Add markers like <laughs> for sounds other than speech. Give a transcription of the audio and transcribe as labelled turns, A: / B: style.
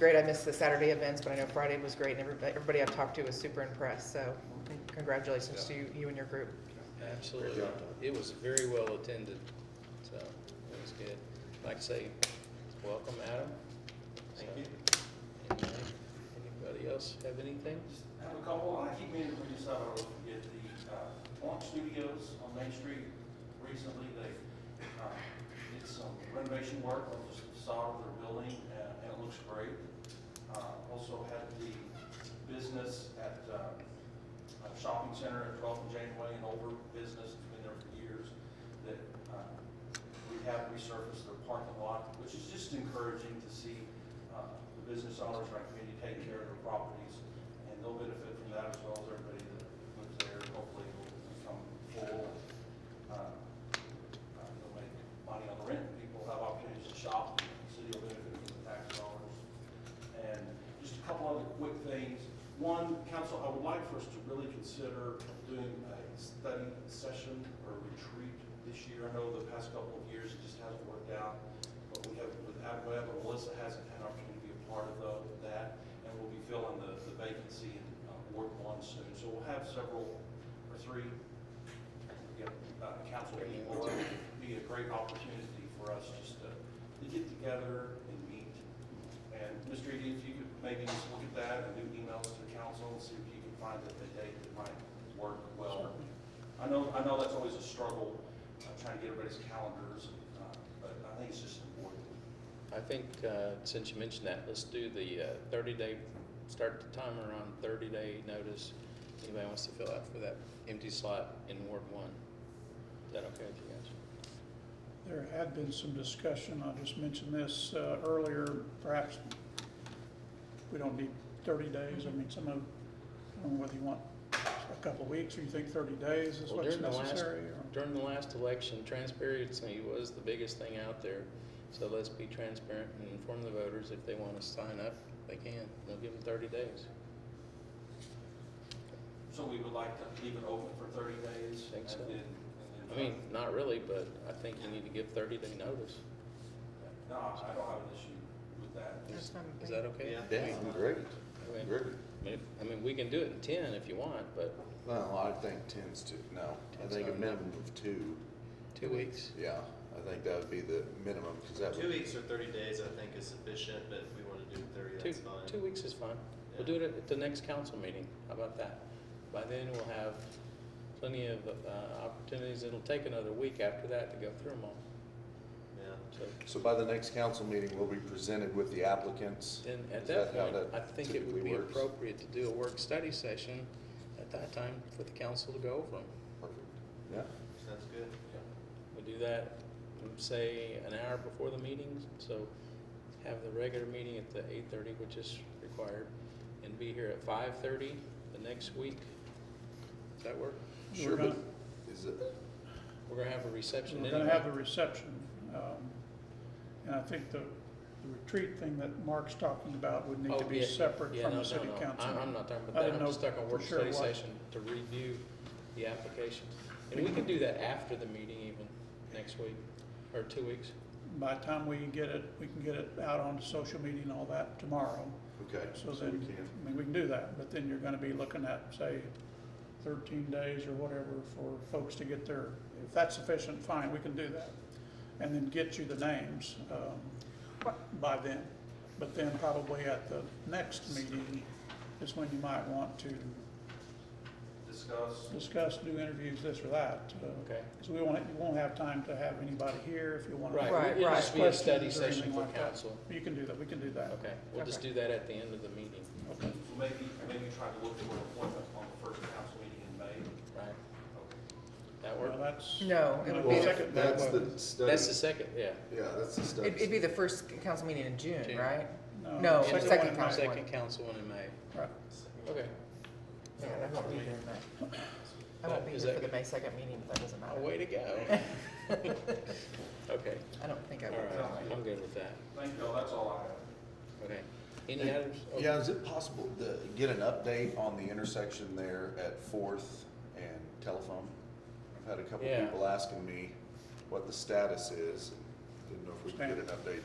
A: great. I missed the Saturday events, but I know Friday was great, and everybody, everybody I've talked to was super impressed, so congratulations to you, you and your group.
B: Absolutely. It was very well attended, so it was good. Like I say, welcome, Adam. Thank you. uh, Anybody else have anything?
C: I have a couple, and I keep meaning to bring this up, I always forget, the, uh, Point Studios on Main Street, recently, they, uh, did some renovation work on the facade of their building, and and it looks great. Uh, also had the business at, uh, a shopping center at 12th and Janeway, an older business, it's been there for years, that, uh, we have resurfaced their parking lot, which is just encouraging to see, uh, the business owners in our community take care of their properties, and they'll benefit from that as well as everybody that lives there, hopefully will become full. uh, uh, They'll make money on the rent, and people have opportunities to shop, and the city will benefit from the tax dollars. And just a couple other quick things. One, council, I would like for us to really consider doing a study session or retreat this year. I know the past couple of years, it just hasn't worked out, but we have, with AdWeb, and Melissa hasn't had an opportunity to be a part of tho- that, and we'll be filling the the vacancy in uh, Ward One soon. So we'll have several, or three, yeah, uh, council people, it would be a great opportunity for us just to to get together and meet. And Mr. Eady, if you could maybe just look at that and do emails to the council and see if you can find a a date that might work well. I know, I know that's always a struggle, uh, trying to get everybody's calendars, uh, but I think it's just important.
B: I think, uh, since you mentioned that, let's do the uh, thirty-day, start the timer on thirty-day notice. Anybody wants to fill out for that empty slot in Ward One? Is that okay with you guys?
D: There had been some discussion, I just mentioned this uh, earlier, perhaps we don't need thirty days, I mean, some of, I don't know whether you want a couple of weeks, or you think thirty days is
B: Well,
D: what's
B: during the last-
D: necessary, or?
B: During the last election, transparency was the biggest thing out there. So let's be transparent and inform the voters if they want to sign up, they can. We'll give them thirty days.
C: So we would like to leave it open for thirty days.
B: Think so.
C: and then- and
B: I
C: then-
B: mean, not really, but I think you need to give thirty day notice.
C: No, I don't have an issue with that.
B: Is is that okay?
E: Yeah, great,
B: Okay.
E: great.
B: I mean, if- I mean, we can do it in ten if you want, but
E: Well, I think ten's to, no, I
B: Ten's
E: think a
B: not
E: minimum of two,
B: two weeks.
E: yeah, I think that would be the minimum, because that
F: Two
E: would,
F: weeks or thirty days, I think, is sufficient, but if we want to do thirty,
B: Two,
F: that's fine.
B: two weeks is fine. We'll do
F: Yeah.
B: it at the next council meeting. How about that? By then, we'll have plenty of uh, opportunities. It'll take another week after that to go through them all.
F: Yeah.
B: So
E: so by the next council meeting, we'll be presented with the applicants.
B: Then at
E: Is
B: that
E: how
B: point,
E: that
B: I think it
E: typically
B: would be
E: works?
B: appropriate to do a work study session at that time for the council to go over them.
E: Perfect. Yeah,
F: Sounds good.
B: We do that, um, say, an hour before the meeting, so have the regular meeting at the eight thirty, which is required, and be here at five thirty the next week. Does that work?
D: We're
E: sure, but
D: gonna-
E: is it,
B: We're gonna have a reception
D: We're
B: anyway.
D: gonna have the reception, um, and I think the the retreat thing that Mark's talking about would need
B: Oh,
D: to be
B: yeah,
D: separate
B: yeah,
D: from
B: no, no,
D: the city
B: no.
D: council.
B: I- I'm not talking
D: I
B: about that,
D: didn't
B: I'm
D: know
B: just talking
D: for
B: work
D: sure
B: study
D: what-
B: session to review the applications. And we can do that after the meeting even, next week, or two weeks.
D: By the time we can get it, we can get it out on social media and all that tomorrow.
E: okay,
D: So
E: so we
D: then,
E: can,
D: I mean, we can do that, but then you're gonna be looking at, say, thirteen days or whatever for folks to get their, if that's sufficient, fine, we can do that. And then get you the names, um, by then. But then probably at the next meeting is when you might want to
C: Discuss,
D: discuss, do interviews, this or that. uh,
B: Okay.
D: So we won't, you won't have time to have anybody here if you wanna.
B: Right,
A: Right,
B: it'll just be a
D: Questions
B: study
D: or
B: session
D: anything
B: for
D: like that.
B: council.
D: You can do that, we can do that.
B: Okay, we'll just
D: Okay.
B: do that at the end of the meeting,
D: Okay.
C: so maybe, maybe try to look for an appointment on the first council meeting in May.
B: right?
C: Okay.
B: That
D: Well,
B: work?
D: that's.
A: No, it would be,
E: well,
A: the-
D: Second,
E: that's
D: that
E: the
D: one.
B: That's the
E: study,
B: second, yeah.
E: yeah, that's the study.
A: it'd it'd be the first council meeting in June,
B: June.
A: right?
D: No,
A: No,
D: Oh, second
A: second
D: one in
A: council.
B: Second council one in May.
D: Right.
B: Okay,
A: Yeah, I won't be here in May. I won't be
B: Oh, Is
A: here
B: that
A: for the
B: good?
A: May second meeting, but that doesn't
B: oh,
A: matter.
B: way
A: <laughs>
B: to go. <laughs> Okay,
A: I don't think I
B: all
A: will.
B: right, I'm good with that.
C: Thank y'all, that's all I have.
B: Okay, any others? Oh,
E: Yeah, is it possible to get an update on the intersection there at Fourth and Telephone? I've had a couple
B: Yeah.
E: people asking me what the status is, and didn't know if we could get an update.